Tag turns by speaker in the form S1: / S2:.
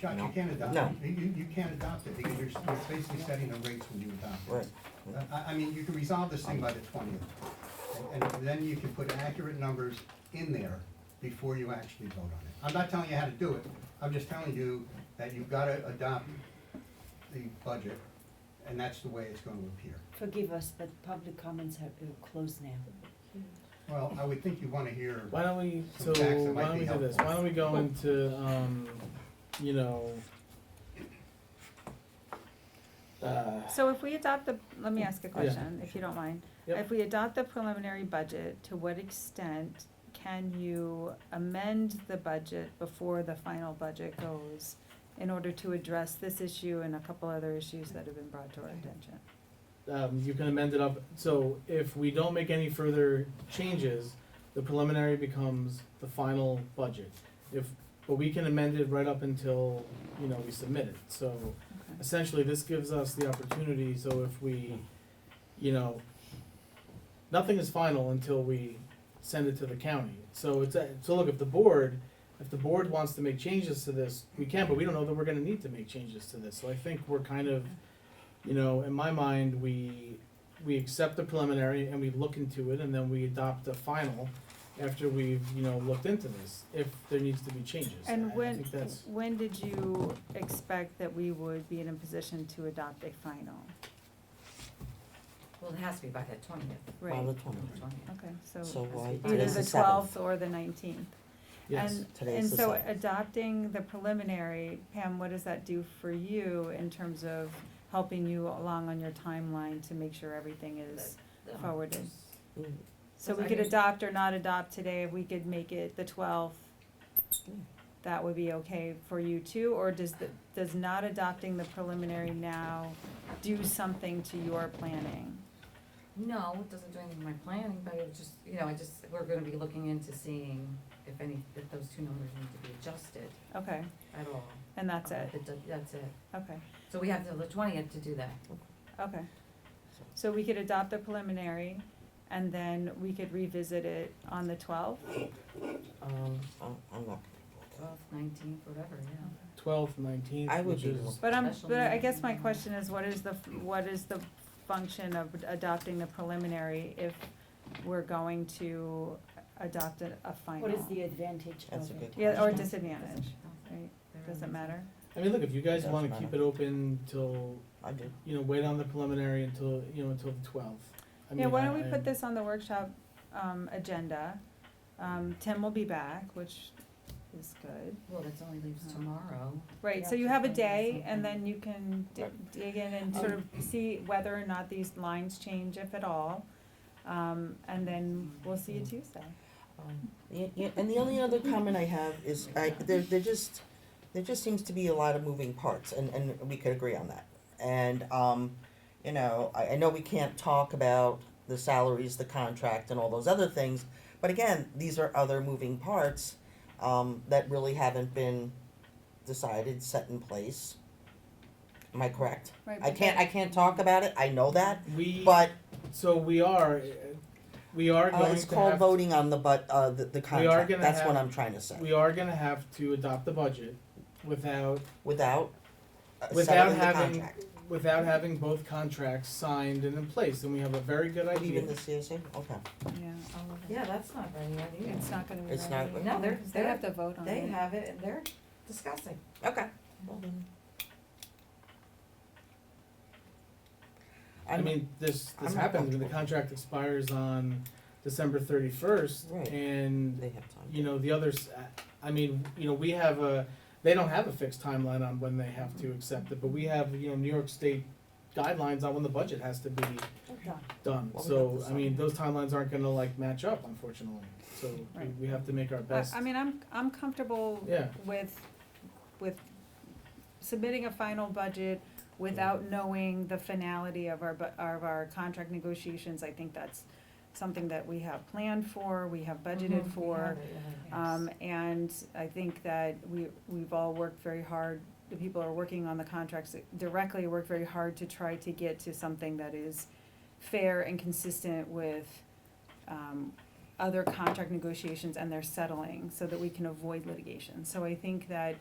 S1: John, you
S2: No.
S1: can't adopt,
S2: No.
S1: it. you, you can't adopt it, because you're, you're basically setting the rates when you adopt it. Uh,
S2: Right.
S1: I, I mean, you can resolve this thing by the twentieth, and and then you can put accurate numbers in there before you actually vote on it. I'm not telling you how to do it, I'm just telling you that you've gotta adopt the budget, and that's the way it's gonna appear.
S3: Forgive us, but public comments have, are closed now.
S1: Well, I would think you wanna hear,
S4: Why don't we, so
S1: Some facts that might
S4: why don't
S1: be
S4: we do this?
S1: helpful.
S4: Why don't we go into, um, you know, uh,
S5: So if we adopt the, let me ask a
S4: Yeah.
S5: question, if you don't mind.
S4: Yep.
S5: If we adopt the preliminary budget, to what extent can you amend the budget before the final budget goes in order to address this issue and a couple other issues that have been brought to our attention?
S4: um, you can amend it up, so if we don't make any further changes, the preliminary becomes the final budget. If, but we can amend it right up until, you know, we submit it, so essentially this gives us the opportunity, so if we, you know, nothing is final until we send it to the county, so it's, a- so look, if the board, if the board wants to make changes to this, we can, but we don't know that we're gonna need to make changes to this, so I think we're kind of, you know, in my mind, we, we accept the preliminary and we look into it, and then we adopt the final after we've, you know, looked into this, if there needs to be changes, I
S5: And
S4: I
S5: when,
S4: think that's,
S5: when did you expect that we would be in a position to adopt a final?
S6: Well, it has to be by the twentieth,
S2: By
S5: Right,
S2: the twentieth.
S6: twentieth.
S5: okay,
S2: So
S5: so
S2: why,
S5: either
S2: today's
S5: the
S2: the seventh.
S5: twelfth or the nineteenth.
S4: yes.
S5: And,
S2: Today
S5: and
S2: is the
S5: so
S2: seventh.
S5: adopting the preliminary, Pam, what does that do for you in terms of helping you along on your timeline to make sure everything is forwarded?
S2: Mm,
S5: So
S6: I
S5: we could
S6: guess-
S5: adopt or not adopt today, if we could make it the twelfth,
S2: Yeah.
S5: that would be okay for you too? Or does the, does not adopting the preliminary now do something to your planning?
S6: No, it doesn't do anything to my planning, but it just, you know, I just, we're gonna be looking into seeing if any, if those two numbers need to be adjusted
S5: Okay,
S6: at all.
S5: and that's it,
S6: Uh, It do- That's it.
S5: okay,
S6: So we have till the twentieth to do that.
S5: okay. So we could adopt the preliminary and then we could revisit it on the twelfth?
S2: Um, I'm, I'm not gonna
S6: Twelfth, nineteenth, whatever, yeah.
S4: twelfth, nineteenth,
S2: I would
S4: which
S2: be
S4: is,
S2: more-
S5: But I'm,
S6: Special
S5: but I
S6: meeting.
S5: guess my question is, what is the, f- what is the function of adopting the preliminary if we're going to adopt a, a final?
S3: What is the advantage of it?
S2: That's a good
S5: Yeah, or
S2: question.
S5: disadvantage, right, doesn't matter,
S4: I mean, look, if you guys
S2: Doesn't
S4: wanna
S2: matter.
S4: keep it open till,
S2: I do.
S4: you know, wait on the preliminary until, you know, until the twelfth.
S5: yeah, why don't we put this on the workshop, um, agenda? Um, Tim will be back, which is good,
S6: Well, that's only leaves tomorrow.
S5: right, so you
S6: Yeah.
S5: have a day, and then you can di- dig in and sort of see whether or not these lines change, if at all. Um, and then we'll see you Tuesday.
S2: Um, Yeah, yeah, and the only other comment I have is, I, there, there just, there just seems to be a lot of moving parts, and, and we could agree on that. And, um, you know, I, I know we can't talk about the salaries, the contract, and all those other things, but again, these are other moving parts, um, that really haven't been decided, set in place. Am I correct?
S5: Right,
S2: I
S5: but
S2: can't, I can't talk about it, I know that,
S4: We,
S2: but,
S4: so we are, we are
S2: uh,
S4: going
S2: it's
S4: to
S2: called
S4: have, to-
S2: voting on the but, uh, the, the
S4: We are
S2: contract,
S4: gonna
S2: that's what
S4: have-
S2: I'm trying to say.
S4: we are gonna have to adopt the budget without,
S2: without uh,
S4: Without
S2: settling the
S4: having-
S2: contract.
S4: without having both contracts signed and in place, and we have a very good idea.
S2: Even the CSA, okay.
S5: Yeah, all of it.
S6: Yeah, that's not ready yet either.
S5: It's not gonna be
S2: It's not-
S5: ready.
S6: No, they're-
S5: They
S6: they're-
S5: have to vote on it.
S6: They have it and they're discussing.
S2: Okay. Well then.
S4: I mean, this, this
S2: I'm not
S4: happens, when the
S2: comfortable.
S4: contract expires on December thirty-first,
S2: Right.
S4: and
S2: They have time.
S4: you know, the others, I mean, you know, we have a, they don't have a fixed timeline on when they have to accept it, but we have, you know, New York State guidelines on when the budget has to be
S2: Okay.
S4: done.
S2: Well, we got
S4: So,
S2: this
S4: I mean,
S2: on.
S4: those timelines aren't gonna like match up unfortunately, so we-
S5: Right.
S4: we have to make our
S5: I,
S4: best.
S5: I mean, I'm, I'm comfortable
S4: Yeah.
S5: with, with submitting a final budget without knowing the finality of our, bu- of our contract negotiations. I think that's something that we have planned for, we have budgeted
S6: Mhm.
S5: for.
S6: We have it, yeah.
S5: Um, and I think that we, we've all worked very hard, the people who are working on the contracts directly work very hard to try to get to something that is fair and consistent with, um, other contract negotiations and their settling, so that we can avoid litigation. So I think that